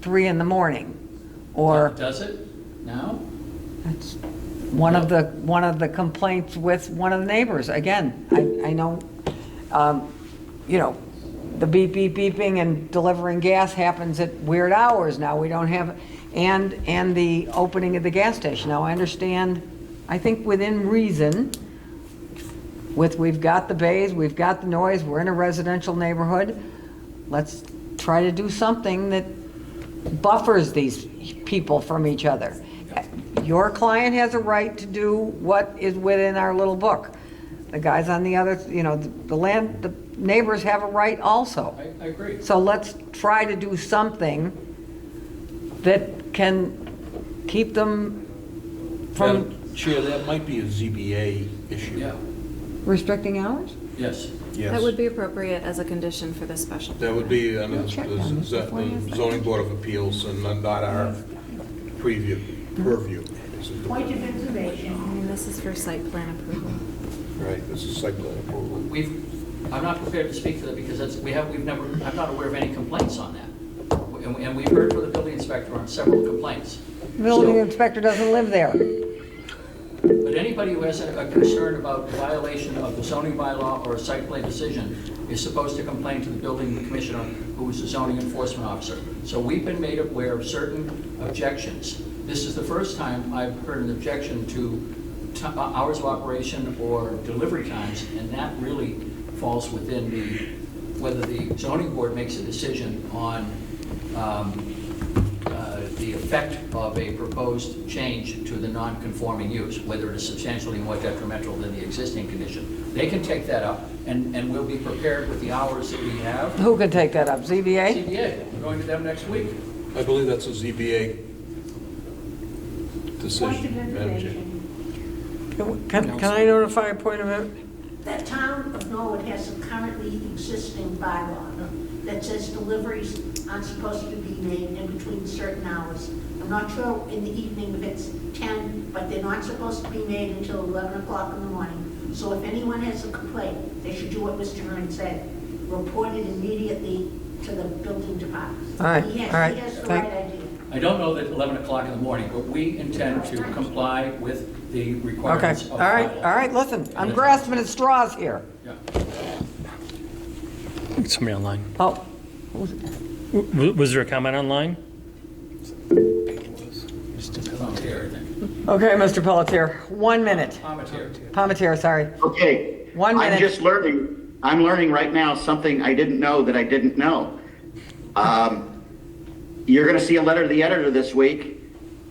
three in the morning, or Does it now? that's one of the, one of the complaints with one of the neighbors. Again, I, I know, um, you know, the beep, beep, beeping and delivering gas happens at weird hours now. We don't have, and, and the opening of the gas station. Now, I understand, I think within reason, with, we've got the bays, we've got the noise, we're in a residential neighborhood, let's try to do something that buffers these people from each other. Your client has a right to do what is within our little book. The guys on the other, you know, the land, the neighbors have a right also. I, I agree. So let's try to do something that can keep them from Madam Chair, that might be a ZBA issue. Yeah, restricting hours? yes. Yes. That would be appropriate as a condition for this special. That would be under the Check on the this before you ask z- zoning board of appeals and not our preview, purview. This is the- Point of I information, mean, this is for site plan approval. Right, this is site plan approval. We've, I'm not prepared to speak to that because that's, we have, we've never, I'm not aware of any complaints on that. And, we- and we've heard from the building inspector on several complaints. Building So- inspector doesn't live there. But anybody who has a a concern about violation of the zoning bylaw or a site plan decision is supposed to complain to the building commissioner, who is the zoning enforcement officer. So we've been made aware of certain objections. This is the first time I've heard an objection to ti- uh, hours of operation or delivery times, and that really falls within the, whether the zoning board makes a decision on um, uh, the effect of a proposed change to the non-conforming use, whether it is substantially more detrimental than the existing condition. They can take that up, and, and we'll be prepared with the hours that we have. Who can take that up? ZBA? CBA, we're going to them next week. I believe that's a ZBA point of decision, Madam Chair. information, Can can I notify a point of, it? that town of Norwood has a currently existing bylaw that says deliveries aren't supposed to be made in between certain hours. I'm not sure in the evening if it's 10, but they're not supposed to be made until 11 o'clock in the morning. So if anyone has a complaint, they should do what Mr. Hearn said, report it immediately to the building department. All right, He has- all right, He has the thank- right idea. I don't know that 11 o'clock in the morning, but we intend to comply with the Okay, requirements of the all right, bylaw. all right, listen, I'm grasping at straws here. Yeah. Somebody online. Oh, W- w- Was there a comment online? Palmetier, I think. okay, Mr. Pelletier, one minute. Palmetier. Palmetier, sorry. Okay. One minute. I'm just learning, I'm learning right now something I didn't know that I didn't know. Um, You're going to see a letter to the editor this week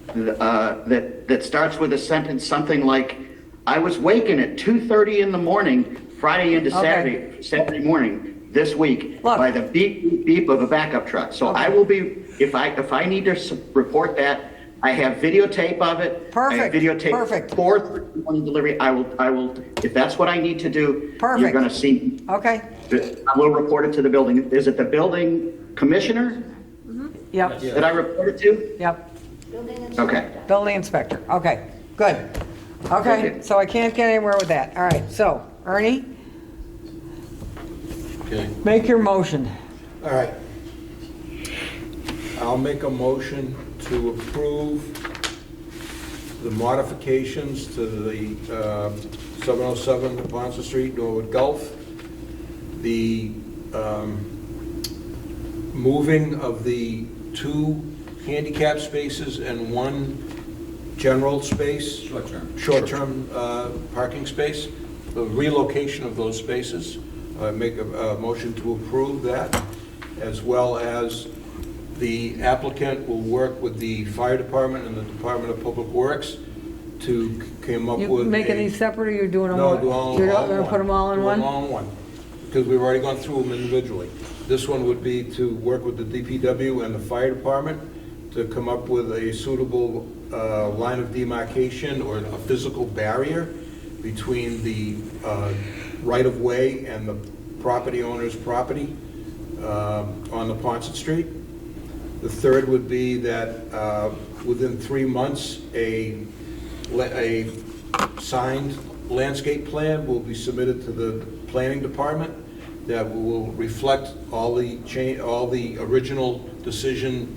uh, that, that starts with a sentence, something like, "I was waking at 2:30 in the morning, Friday into Okay. Saturday, Saturday morning this week, Look. by the beep, beep, beep of a backup truck." So I will be, if I, if I need to s- report that, I have videotape of it. Perfect, I have videotape. perfect. Fourth one delivery, I will, I will, if that's what I need to do, Perfect. you're going to see, Okay, I will report it to the building. Is it the building commissioner yep, that I report it to? yep, Building inspector. Okay. building inspector, okay, good. Okay, Okay. so I can't get anywhere with that, all right, so, Ernie, Okay. make your motion. All right. I'll make a motion to approve the modifications to the uh, 707 Ponce Street, Norwood Gulf, the um, moving of the two handicap spaces and one general space. Short-term. Short-term uh, parking space, the relocation of those spaces. I Make a a motion to approve that, as well as the applicant will work with the fire department and the Department of Public Works to c- come up You with a... making these separate, or you're doing them No, all? do all all in one. You're gonna put them all in Do one? them all in one, because we've already gone through them individually. This one would be to work with the DPW and the fire department to come up with a suitable uh, line of demarcation or a physical barrier between the uh, right-of-way and the property owner's property um, on the Ponset Street. The third would be that uh, within three months, a, le- a signed landscape plan will be submitted to the planning department that will reflect all the cha, all the original decision